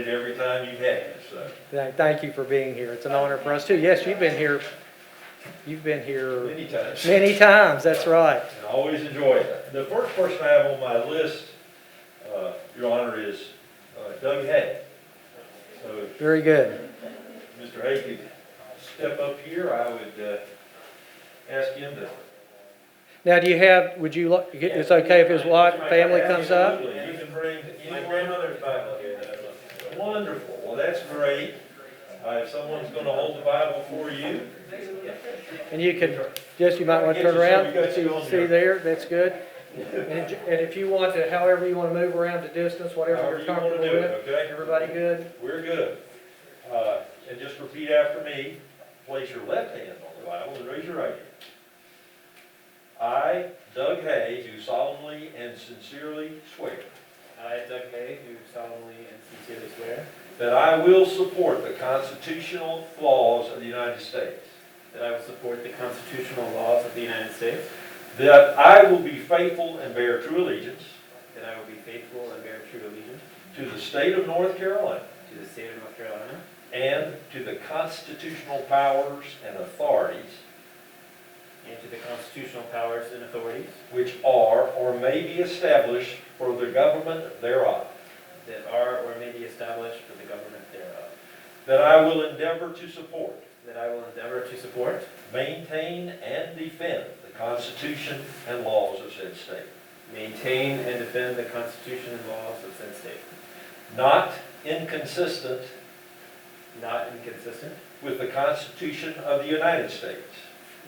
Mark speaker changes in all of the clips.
Speaker 1: time you've had, so.
Speaker 2: Th- Thank you for being here. It's an honor for us too. Yes, you've been here, you've been here
Speaker 1: Many times. And
Speaker 2: many times, that's right.
Speaker 1: I always enjoy it. The first person I have on my list, uh, Your Honor, is uh, Doug Hay. So
Speaker 2: Very good.
Speaker 1: if Mr. Hay could step up here, I would uh, ask him to.
Speaker 2: Now, do you have, would you, li- it's okay if his wife, family comes up?
Speaker 1: Absolutely. You can bring anyone. Wonderful. Well, that's great. Uh, If someone's going to hold the Bible for you,
Speaker 2: And you can, just you might want to turn around, see, see there, that's good. And j- and if you want to, however you want to move around the distance, whatever
Speaker 1: however
Speaker 2: you're
Speaker 1: you want to
Speaker 2: comfortable
Speaker 1: do
Speaker 2: with.
Speaker 1: it, okay?
Speaker 2: Everybody good?
Speaker 1: We're good. Uh, And just repeat after me. Place your left hand on the Bible and raise your right hand. I, Doug Hay, do solemnly and sincerely swear
Speaker 3: I, Doug Hay, do solemnly and sincerely swear
Speaker 1: that I will support the constitutional laws of the United States,
Speaker 3: that I will support the constitutional laws of the United States,
Speaker 1: that I will be faithful and bear true allegiance
Speaker 3: that I will be faithful and bear true allegiance
Speaker 1: to the state of North Carolina
Speaker 3: to the state of North Carolina
Speaker 1: and to the constitutional powers and authorities
Speaker 3: and to the constitutional powers and authorities
Speaker 1: which are or may be established for the government thereof.
Speaker 3: that are or may be established for the government thereof,
Speaker 1: That I will endeavor to support,
Speaker 3: that I will endeavor to support,
Speaker 1: maintain, and defend the Constitution and laws of said state,
Speaker 3: maintain, and defend the Constitution and laws of said state,
Speaker 1: not inconsistent
Speaker 3: not inconsistent
Speaker 1: with the Constitution of the United States,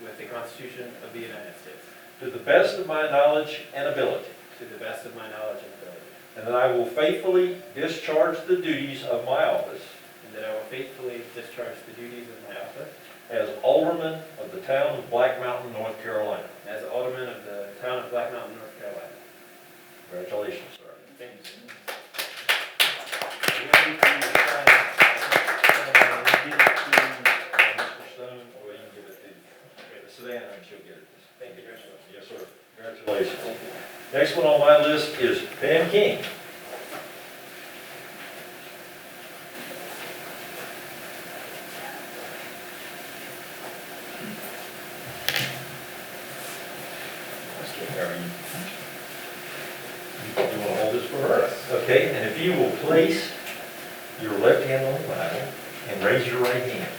Speaker 3: with the Constitution of the United States,
Speaker 1: to the best of my knowledge and ability,
Speaker 3: to the best of my knowledge and ability,
Speaker 1: and that I will faithfully discharge the duties of my office
Speaker 3: and that I will faithfully discharge the duties of my office
Speaker 1: as alderman of the town of Black Mountain, North Carolina.
Speaker 3: As alderman of the town of Black Mountain, North Carolina.
Speaker 1: Congratulations, sir.
Speaker 3: Thank you.
Speaker 1: We'll need for you to sign it. Uh, we'll give it to, uh, Mr. Stone, or you can give it to Savannah, and she'll get it. Thank you. Yes, sir. Congratulations. Next one on my list is Pam King. You want to hold this for her? Okay, and if you will place your left hand on the Bible and raise your right hand.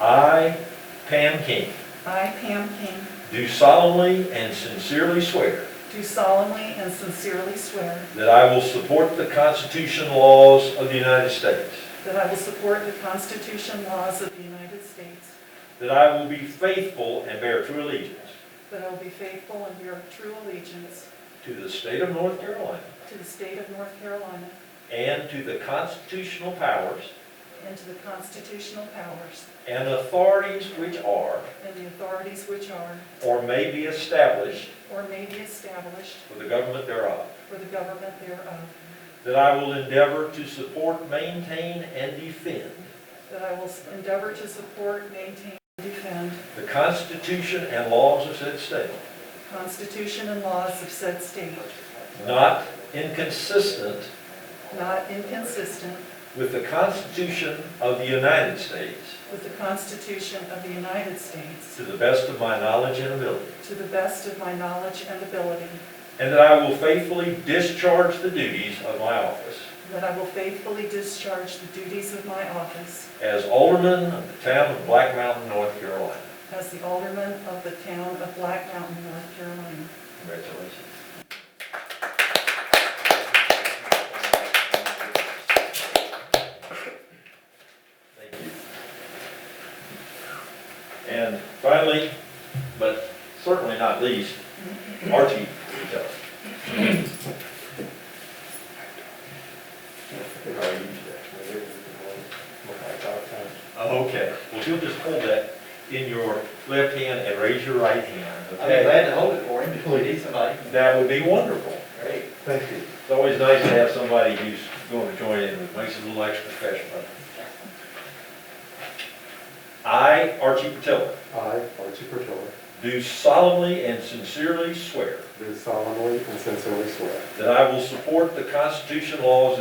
Speaker 1: I, Pam King,
Speaker 4: I, Pam King,
Speaker 1: do solemnly and sincerely swear
Speaker 4: do solemnly and sincerely swear
Speaker 1: that I will support the Constitution and laws of the United States,
Speaker 4: that I will support the Constitution laws of the United States,
Speaker 1: that I will be faithful and bear true allegiance
Speaker 4: that I will be faithful and bear true allegiance
Speaker 1: to the state of North Carolina
Speaker 4: to the state of North Carolina
Speaker 1: and to the constitutional powers
Speaker 4: and to the constitutional powers
Speaker 1: and authorities which are
Speaker 4: and the authorities which are
Speaker 1: or may be established
Speaker 4: or may be established
Speaker 1: for the government thereof,
Speaker 4: for the government thereof,
Speaker 1: that I will endeavor to support, maintain, and defend
Speaker 4: that I will endeavor to support, maintain, and defend
Speaker 1: the Constitution and laws of said state,
Speaker 4: the Constitution and laws of said state,
Speaker 1: not inconsistent
Speaker 4: not inconsistent
Speaker 1: with the Constitution of the United States,
Speaker 4: with the Constitution of the United States,
Speaker 1: to the best of my knowledge and ability,
Speaker 4: To the best of my knowledge and ability.
Speaker 1: and that I will faithfully discharge the duties of my office
Speaker 4: That I will faithfully discharge the duties of my office
Speaker 1: as alderman of the town of Black Mountain, North Carolina.
Speaker 4: as the alderman of the town of Black Mountain, North Carolina.
Speaker 1: Congratulations. Thank you. And finally, but certainly not least, Archie Patel. Okay, well, you'll just hold that in your left hand and raise your right hand,
Speaker 5: I'd be
Speaker 1: okay?
Speaker 5: glad to hold it for him, we need somebody.
Speaker 1: That would be wonderful.
Speaker 5: Great.
Speaker 6: Thank you.
Speaker 1: It's always nice to have somebody who's going to join in, it makes it a little extra special. I, Archie Patillo,
Speaker 6: I, Archie Pertola,
Speaker 1: do solemnly and sincerely swear
Speaker 6: do solemnly and sincerely swear
Speaker 1: that I will support the Constitution laws